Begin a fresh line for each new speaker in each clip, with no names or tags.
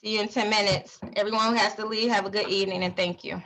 See you in ten minutes. Everyone who has to leave, have a good evening and thank you.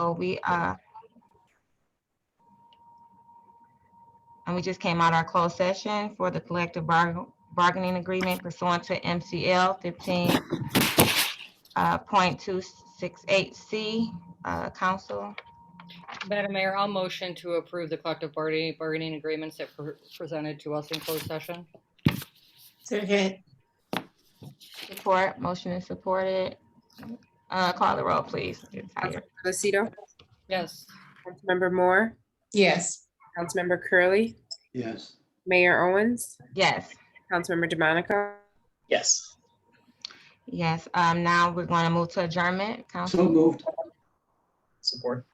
So we, uh, and we just came out our closed session for the collective bargain, bargaining agreement pursuant to MCL fifteen uh, point two six eight C, uh, council.
Madam Mayor, I'll motion to approve the collective bargaining, bargaining agreements that were presented to us in closed session.
Second,
Support, motion is supported. Uh, call the roll, please. You're tired.
Lucido,
Yes,
Councilmember Moore,
yes.
Councilmember Curley,
Yes.
Mayor Owens,
Yes,
Councilmember DeMonico,
Yes.
yes. Um, now we're going to move to adjournment. Council,
So moved.
Support.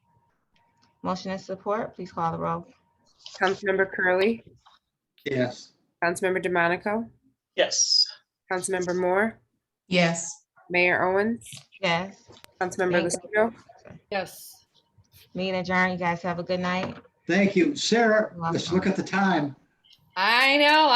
motion is support. Please call the roll.
Councilmember Curley,
Yes.
Councilmember DeMonico,
Yes.
Councilmember Moore,
Yes.
Mayor Owens,
Yes.
Councilmember
Thank
Lucido,
yes.
Meeting adjourned. You guys have a good night.
Thank you. Sarah,
You're
let's look at the time.
I know,